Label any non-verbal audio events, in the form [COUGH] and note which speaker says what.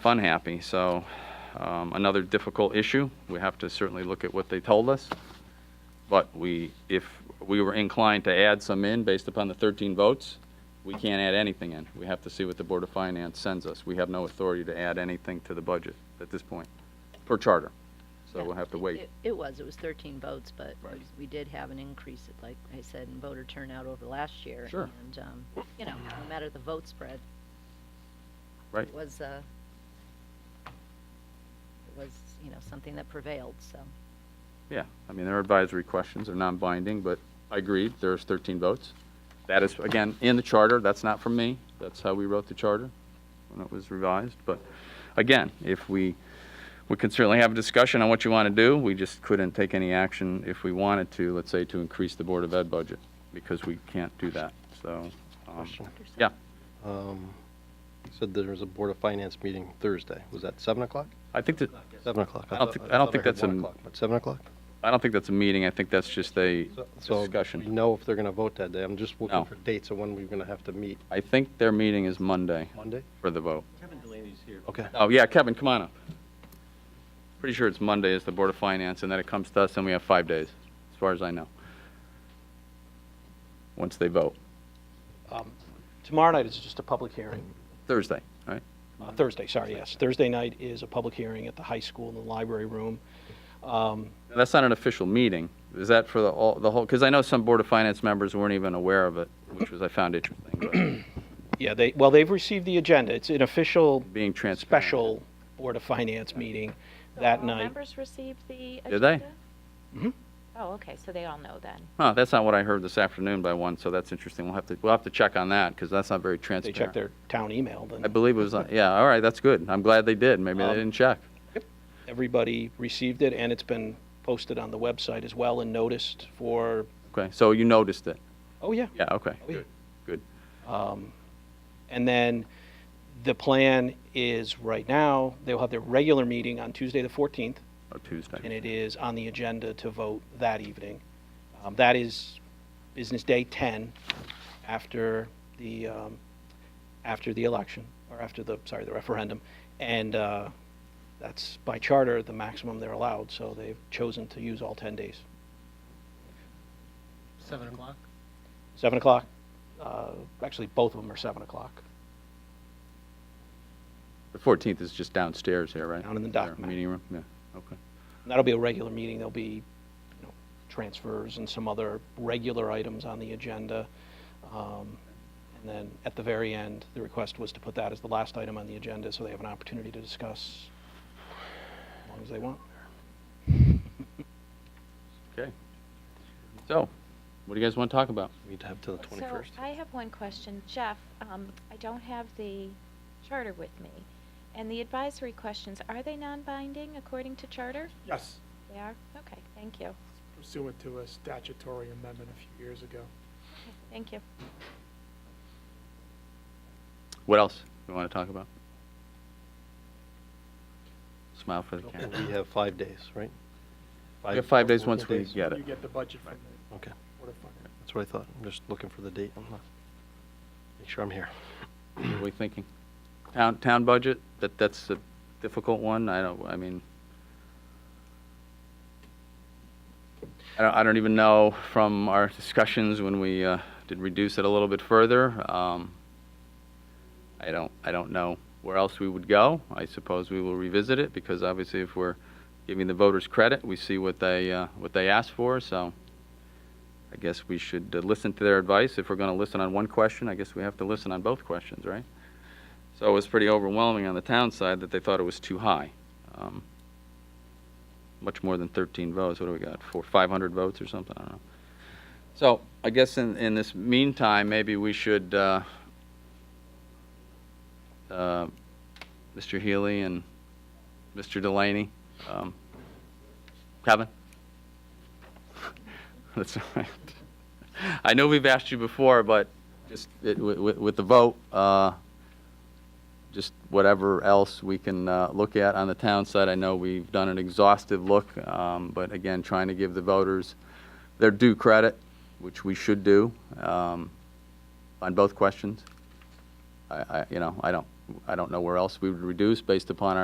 Speaker 1: fun happy. So um, another difficult issue. We have to certainly look at what they told us. But we, if we were inclined to add some in based upon the 13 votes, we can't add anything in. We have to see what the Board of Finance sends us. We have no authority to add anything to the budget at this point, per charter. So
Speaker 2: Yeah,
Speaker 1: we'll have to
Speaker 2: it-
Speaker 1: wait.
Speaker 2: it- It was, it was 13 votes, but we-
Speaker 1: Right.
Speaker 2: we did have an increase, it- like I said, in voter turnout over last year.
Speaker 1: Sure.
Speaker 2: And, um, you know, no matter the vote spread.
Speaker 1: Right.
Speaker 2: It was, uh, it was, you know, something that prevailed, so.
Speaker 1: Yeah, I mean, they're advisory questions, they're non-binding, but I agreed, there's 13 votes. That is, again, in the charter, that's not from me, that's how we wrote the charter when it was revised, but again, if we, we could certainly have a discussion on what you want to do, we just couldn't take any action if we wanted to, let's say, to increase the Board of Ed budget, because we can't do that, so. um,
Speaker 3: Question.
Speaker 1: Yeah,
Speaker 3: Um, You said there was a Board of Finance meeting Thursday. Was that 7 o'clock?
Speaker 1: I think that,
Speaker 3: 7 o'clock.
Speaker 1: I don't think- I don't think
Speaker 3: thought
Speaker 1: that's
Speaker 3: heard
Speaker 1: a-
Speaker 3: 1 o'clock, but 7 o'clock?
Speaker 1: I don't think that's a meeting, I think that's just a
Speaker 3: So- So we
Speaker 1: discussion.
Speaker 3: know if they're going to vote that day. I'm just
Speaker 1: No.
Speaker 3: looking for dates of when we're going to have to meet.
Speaker 1: I think their meeting is Monday
Speaker 3: Monday?
Speaker 1: for the vote.
Speaker 4: Kevin Delaney's here.
Speaker 3: Okay.
Speaker 1: Oh, yeah, Kevin, come on up. Pretty sure it's Monday is the Board of Finance, and then it comes to us, and we have five days, as far as I know. Once they vote.
Speaker 5: Tomorrow night is just a public hearing.
Speaker 1: Mm-hmm. Thursday, right?
Speaker 5: Uh, Thursday, sorry, yes. Thursday night is a public hearing at the high school in the library room. Um,
Speaker 1: Now, That's not an official meeting. Is that for the, all, the whole, because I know some Board of Finance members weren't even aware of it, which was, I found interesting,
Speaker 5: Yeah, they, well, they've received the agenda. It's an official
Speaker 1: but being transparent.
Speaker 5: special Board of Finance meeting
Speaker 6: So
Speaker 5: that
Speaker 6: all
Speaker 5: night. Mm-hmm.
Speaker 6: members received the agenda?
Speaker 1: Did they?
Speaker 6: Oh, okay, so they all know then.
Speaker 1: Huh, that's not what I heard this afternoon by one, so that's interesting. We'll have to, we'll have to check on that, because that's not very
Speaker 5: They
Speaker 1: transparent.
Speaker 5: check their town email,
Speaker 1: I
Speaker 5: then
Speaker 1: believe it
Speaker 5: [LAUGHS]
Speaker 1: was, on- yeah, all right, that's good. I'm glad they did. Maybe they
Speaker 5: Um,
Speaker 1: didn't check.
Speaker 5: everybody received it, and it's been posted on the website as well and noticed for,
Speaker 1: Okay, so you noticed it?
Speaker 5: oh, yeah.
Speaker 1: Yeah, okay.
Speaker 5: yeah.
Speaker 1: Good, good.
Speaker 5: And then the plan is, right now, they'll have their regular meeting on Tuesday, the 14th,
Speaker 1: Oh, Tuesday.
Speaker 5: and it is on the agenda to vote that evening. Um, That is business day 10 after the, um, after the election, or after the, sorry, the referendum. And uh, that's by charter, the maximum they're allowed, so they've chosen to use all 10 days.
Speaker 4: 7 o'clock?
Speaker 5: 7 o'clock, uh, actually, both of them are 7 o'clock.
Speaker 1: The 14th is just downstairs here, right?
Speaker 5: Down in the
Speaker 1: Their
Speaker 5: dock, Matt.
Speaker 1: Meeting room, yeah, okay.
Speaker 5: And that'll be a regular meeting, there'll be, you know, transfers and some other regular items on the agenda. Um, And then at the very end, the request was to put that as the last item on the agenda, so they have an opportunity to discuss as long as they want.
Speaker 1: Okay. So, what do you guys want to talk about?
Speaker 3: We'd have till the 21st.
Speaker 6: So I have one question. Jeff, um, I don't have the charter with me. And the advisory questions, are they non-binding according to charter?
Speaker 7: Yes,
Speaker 6: They are? Okay, thank you.
Speaker 7: pursuant to a statutory amendment a few years ago.
Speaker 6: Okay, Thank you.
Speaker 1: What else we want to talk about? Smile for the camera.
Speaker 3: We have five days, right?
Speaker 1: We have five days
Speaker 3: working
Speaker 1: once we
Speaker 3: days?
Speaker 1: get
Speaker 7: You
Speaker 1: it.
Speaker 7: get the budget from the
Speaker 3: Okay,
Speaker 7: Board of Finance.
Speaker 3: that's what I thought. I'm just looking for the date. I'm not- Make sure I'm here.
Speaker 1: What are we thinking? Town, town budget, that, that's a difficult one, I don't, I mean, I don't, I don't even know from our discussions when we, uh, did reduce it a little bit further, um, I don't, I don't know where else we would go, I suppose we will revisit it, because obviously if we're giving the voters credit, we see what they, uh, what they asked for, so I guess we should uh, listen to their advice, if we're gonna listen on one question, I guess we have to listen on both questions, right? So it was pretty overwhelming on the town side that they thought it was too high. Um, Much more than 13 votes, what do we got, four, 500 votes or something, I don't know. So I guess in, in this meantime, maybe we should, uh, uh, Mr. Healy and Mr. Delaney, um, Kevin? That's all right. I know we've asked you before, but just it- wi- wi- with the vote, uh, just whatever else we can uh, look at on the town side. I know we've done an exhaustive look, um, but again, trying to give the voters their due credit, which we should do, um, on both questions. I, I, you know, I don't, I don't know where else we would reduce based upon our.